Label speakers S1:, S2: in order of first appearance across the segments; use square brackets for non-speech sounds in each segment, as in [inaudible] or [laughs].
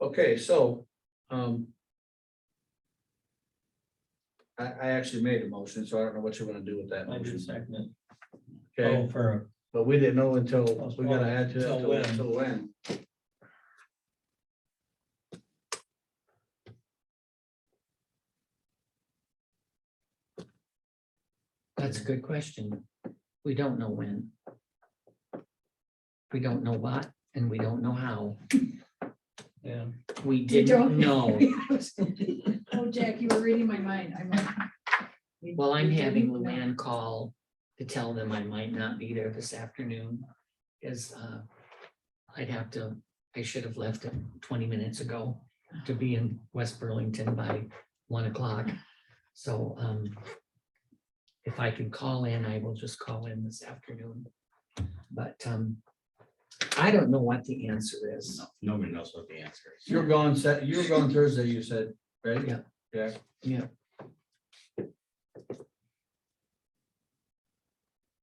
S1: Okay, so, um. I, I actually made a motion, so I don't know what you want to do with that
S2: I do
S1: motion,
S2: second it.
S1: okay?
S2: Oh, For,
S1: But we didn't know until, we gotta add to,
S2: Till when?
S1: it until when.
S3: That's a good question. We don't know when. We don't know what, and we don't know how.
S2: yeah,
S3: We
S4: You
S3: didn't
S4: don't- [laughs]
S3: know.
S1: [laughs]
S4: Oh, Jack, you were reading my mind. I'm like. we-
S3: Well, I'm
S4: we
S3: having
S4: didn't know.
S3: Luann call to tell them I might not be there this afternoon. Is, uh, I'd have to, I should have left it twenty minutes ago to be in West Burlington by one o'clock. So, um, if I can call in, I will just call in this afternoon. But, um, I don't know what the answer is.
S5: No, nobody knows what the answer is.
S1: You're gone Sat, you were gone Thursday, you said, right?
S3: Yeah.
S1: Yeah.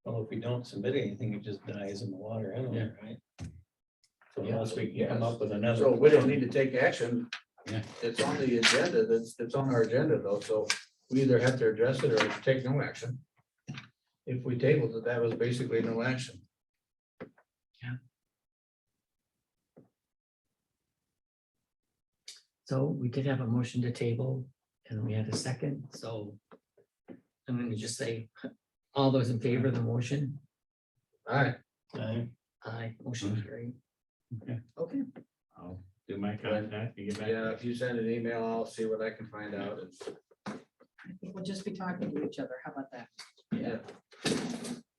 S2: well, if we don't submit anything, it just dies in the water anyway, right? So
S3: Yeah.
S2: unless we can come up with another.
S1: So we don't need to take action.
S5: Yeah.
S1: It's on the agenda, that's, it's on our agenda though, so we either have to address it or take no action. If we tabled it, that was basically no action.
S3: So we did have a motion to table and we had a second, so. I'm gonna just say, all those in favor of the motion,
S1: All right,
S2: Aye.
S3: aye, motion carried.
S5: Okay.
S3: Okay,
S5: I'll do my contact and get back. to
S1: yeah, if you send an email, I'll see what I can find out.
S4: I think We'll just be talking to each other. How about that?
S1: Yeah.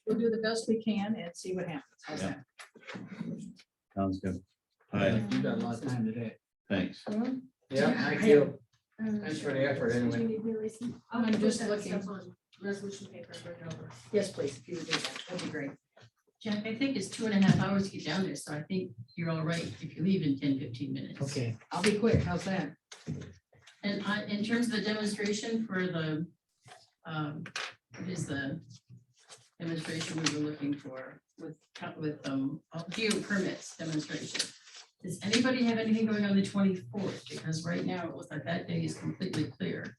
S4: We'll do the best we can and see what happens. How's
S5: Yeah.
S4: that?
S5: you. Sounds good. All right,
S1: You've got a lot of time today.
S5: thanks.
S6: Well,
S1: Yeah, thank you.
S6: um,
S1: Thanks for the effort
S6: since
S1: anyway.
S6: we need new receipt,
S4: I'm
S6: I'll
S4: just
S6: put that
S4: looking.
S6: stuff on Resolution paper, and bring it over.
S4: Yes, please, if you would do that, that'd be great.
S7: Jack, I think it's two and a half hours to get down there, so I think you're all right if you leave in 10, 15 minutes.
S3: okay,
S4: I'll be quick. How's that?
S7: And I, in terms of the demonstration for the, um, what is the demonstration we were looking for with, co- with, um, geo permits demonstration? Does anybody have anything going on the twenty-fourth? Because right now it looks like that day is completely clear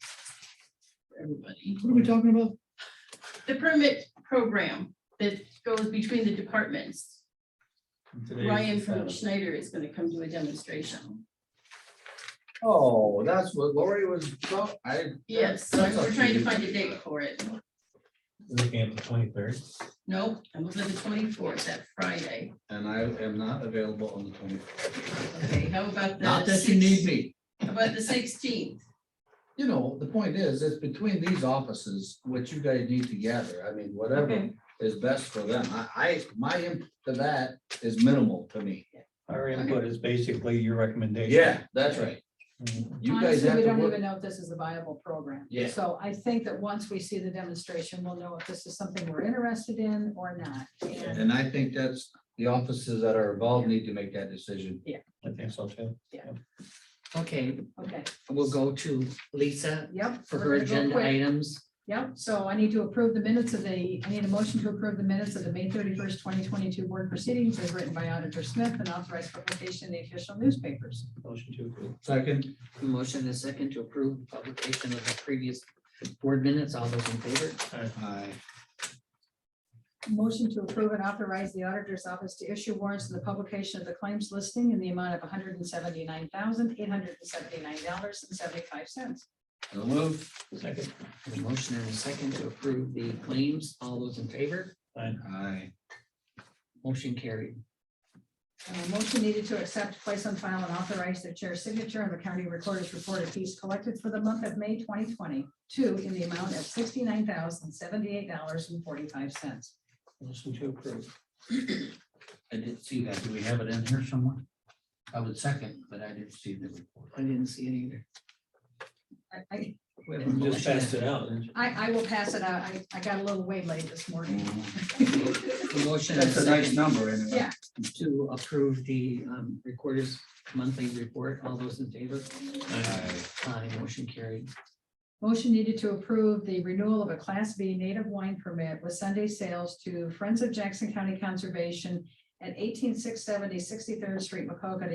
S7: for everybody.
S4: What are we talking about?
S7: The permit program that goes between the departments.
S2: Today's uh,
S7: Ryan from
S2: Saturday.
S7: Schneider is gonna come do a demonstration.
S1: Oh, that's what Lori was, talk- I.
S7: Yes, so we're trying to find a date for it.
S2: Looking at the twenty-third.
S7: Nope, I'm looking at the twenty-fourth, that Friday.
S1: And I am not available on the twenty.
S7: Okay, how about the?
S1: Not that you need
S7: 16th?
S1: me.
S7: How about the sixteenth?
S1: you know, the point is, it's between these offices, what you guys need to gather, I mean, whatever
S7: Okay.
S1: is best for them, I, I, my input to that is minimal to me.
S2: Our input is basically your recommendation.
S1: That's right,
S2: Mhm.
S1: you guys
S4: Honestly,
S1: have
S4: we
S1: to
S4: don't
S1: work,
S4: even know if this is a viable program.
S1: Yeah.
S4: So I think that once we see the demonstration, we'll know if this is something we're interested in or not. And
S1: and I think that's, the offices that are involved need to make that decision.
S2: I think so too.
S3: okay,
S4: Okay,
S3: we'll go to Lisa
S4: yep.
S3: for
S4: we're
S3: her
S4: gonna go
S3: agenda
S4: quick.
S3: items.
S4: Yep, so I need to approve the minutes of the, I need a motion to approve the minutes of the May thirty-first, twenty twenty-two board proceedings as written by Auditor Smith and authorized publication in the official newspapers.
S2: Motion to approve.
S1: Second,
S3: Motion and a second to approve publication of the previous board minutes, all those in favor?
S1: I,
S4: Motion to approve and authorize the auditor's office to issue warrants to the publication of the claims listing in the amount of one hundred and seventy-nine thousand, eight hundred and seventy-nine dollars and seventy-five cents.
S1: so move,
S2: Second.
S3: A motion and a second to approve the claims, all those in favor?
S1: I,
S3: Motion carried.
S4: motion needed to accept, place on file, and authorize the chair's signature on the county recorder's report of fees collected for the month of May twenty twenty-two in the amount of sixty-nine thousand, seventy-eight dollars and forty-five cents.
S2: Motion to approve.
S5: I didn't see that. Do we have it in here somewhere? I would second, but I didn't see the report.
S3: I didn't see it either.
S4: I,
S3: We have a
S2: We Just
S3: motion
S2: passed it out. didn't you?
S4: I I will pass it out. I, I got a little waylaid this morning.
S3: and- a Motion and a
S1: that's a nice
S3: second
S1: number anyway.
S4: Yeah.
S3: to approve the um, recorder's monthly report, all those in favor?
S1: Aye.
S3: Aye, motion carried.
S4: Motion needed to approve the renewal of a Class B native wine permit with Sunday sales to Friends of Jackson County Conservation at eighteen six seventy Sixty-third Street, Macocota,